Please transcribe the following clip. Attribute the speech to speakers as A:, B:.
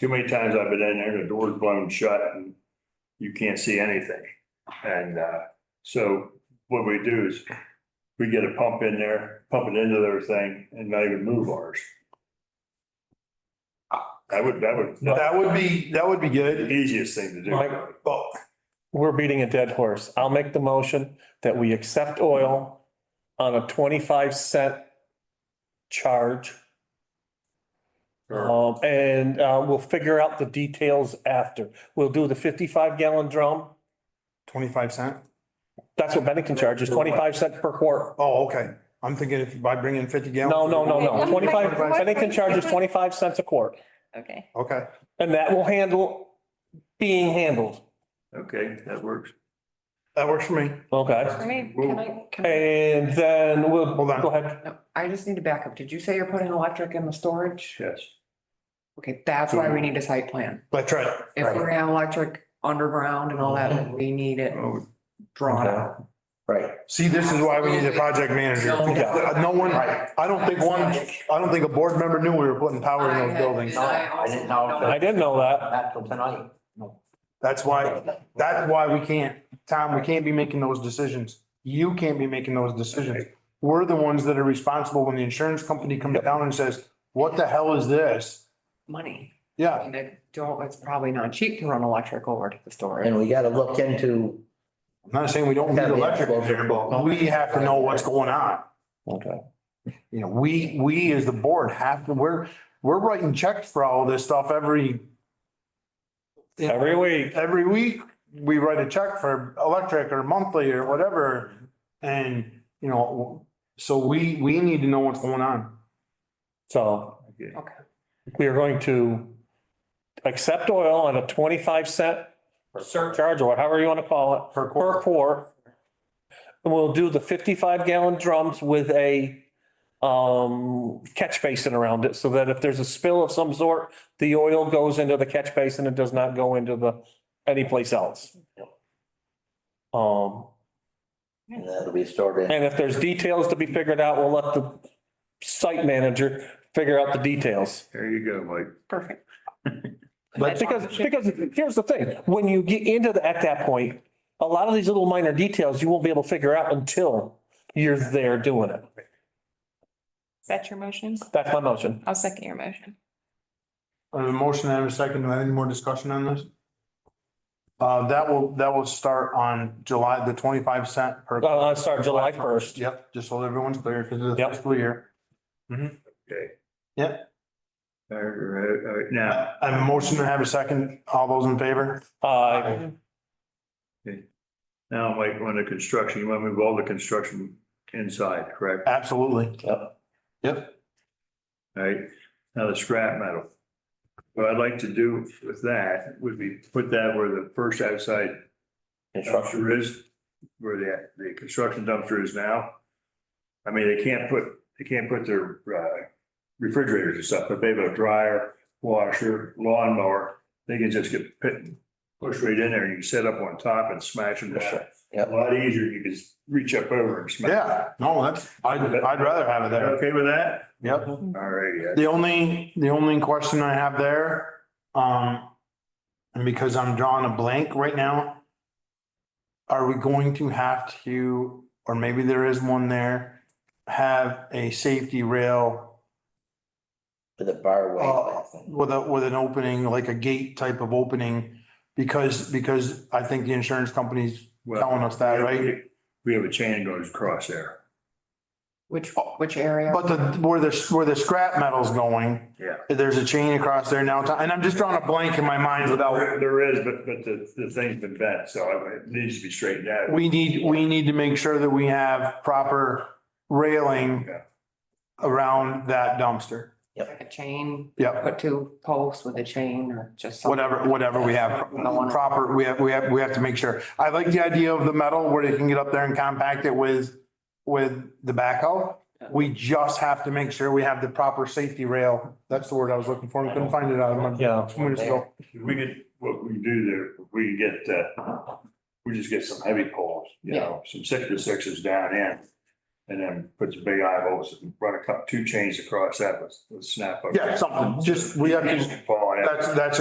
A: Too many times I've been in there, the door's blown shut and you can't see anything. And, uh, so what we do is we get a pump in there, pump it into their thing and not even move ours. That would, that would,
B: That would be, that would be
A: the
B: good.
A: easiest thing to do.
B: Like, well,
C: We're beating a dead horse. I'll make the motion that we accept oil on a twenty-five cent charge.
A: Sure.
C: Um, and, uh, we'll figure out the details after. We'll do the fifty-five gallon drum.
B: twenty-five cent?
C: That's what Bennington charges, twenty-five cents per quart.
B: Oh, okay. I'm thinking if I bring in fifty gallons.
C: No, no, no, no.
D: Okay.
C: Twenty-five,
D: What-
C: Bennington charges twenty-five cents a quart.
D: Okay,
B: Okay,
C: And that will handle, being handled.
A: Okay, that works.
B: that works for me.
C: Okay.
D: I mean, can I, can I,
C: And then we'll,
B: Hold on.
C: go ahead.
E: No, I just need to back up. Did you say you're putting electric in the storage?
A: Yes.
E: Okay, that's why we need a site plan.
B: That's right. Mhm.
E: If we're gonna have electric underground and all that, then we need it
A: Oh,
E: drawn out.
B: Right. See, this is why we need a project manager.
E: No.
B: Uh, No one, I don't think one, I don't think a board member knew we were putting power in those buildings.
E: I had-
F: I didn't know.
E: also-
C: I didn't know that.
F: Not till tonight. No.
B: That's why, that's why we can't, Tom, we can't be making those decisions. You can't be making those decisions. We're the ones that are responsible when the insurance company comes down and says, what the hell is this?
E: Money. I
B: Yeah,
E: mean, I don't, it's probably not cheap to run electric over to the storage.
F: And we gotta look into,
B: I'm not saying we don't need electric in here, but we have to know what's going on.
C: Okay.
B: You know, we, we as the board have to, we're, we're writing checks for all this stuff every.
C: Every week.
B: Every week, we write a check for electric or monthly or whatever. And, you know, so we, we need to know what's going on.
C: So
A: okay.
C: we are going to accept oil on a twenty-five cent surcharge or however you want to call it,
B: Per
C: per
B: quarter,
C: quart. And we'll do the fifty-five gallon drums with a um, catch basin around it so that if there's a spill of some sort, the oil goes into the catch basin and does not go into the, anyplace else. Um,
F: and that'll be stored in.
C: and if there's details to be figured out, we'll let the site manager figure out the details.
A: There you go, Mike.
E: Perfect.
C: But because, because here's the thing, when you get into the, at that point, a lot of these little minor details you won't be able to figure out until you're there doing it.
D: that's your motion?
C: That's my motion.
D: I'll second your motion.
B: I have a motion, I have a second, do I have any more discussion on this? Uh, that will, that will start on July, the twenty-five cent per.
C: Uh, start July first.
B: Yep, just so everyone's clear, because of the
C: Yep.
B: fiscal year.
A: Okay.
B: Yep.
A: All right, all right, now,
B: I have a motion, I have a second, all those in favor?
C: Uh,
A: Now, Mike, on the construction, you want to move all the construction inside, correct?
B: Absolutely.
A: Yep.
B: Yep,
A: All right, now the scrap metal. What I'd like to do with that would be put that where the first outside dumpster is, where the, the construction dumpster is now. I mean, they can't put, they can't put their uh, refrigerators and stuff, but they have a dryer, washer, lawnmower. They can just get pit, pushed right in there and you can set up on top and smash them down.
F: Yep.
A: A lot easier, you can just reach up over and smash.
B: yeah, no, that's, I'd, I'd rather have it
A: You
B: there,
A: Okay with that?
B: yep.
A: All right, yeah.
B: The only, the only question I have there, um, and because I'm drawing a blank right now. Are we going to have to, or maybe there is one there, have a safety rail
F: For the bar
B: uh,
F: way.
B: with a, with an opening, like a gate type of opening? Because, because I think the insurance company's
A: Well,
B: telling us that, right?
A: We have a chain goes across there.
E: Which, which area?
B: But the, where the, where the scrap metal's going,
A: Yeah.
B: there's a chain across there now, and I'm just drawing a blank in my mind without
A: There there is, but, but the, the thing's been bent, so it needs to be straightened out.
B: We need, we need to make sure that we have proper railing
A: Yeah.
B: around that dumpster.
E: Like a chain,
B: Yep,
E: put two posts with a chain or just. something.
B: whatever, whatever we have,
E: No one-
B: proper, we have, we have, we have to make sure. I like the idea of the metal where they can get up there and compact it with, with the backhoe. We just have to make sure we have the proper safety rail. That's the word I was looking for. I couldn't find it out of my,
C: yeah,
B: two minutes ago.
A: We could, what we do there, we could get, uh, we just get some heavy poles, you know, some six to sixes down in. And then put the big eye holes and run a cup, two chains across that with, with snap. Um,
B: Yeah, something, just, we have to,
A: Fall out.
B: that's, that's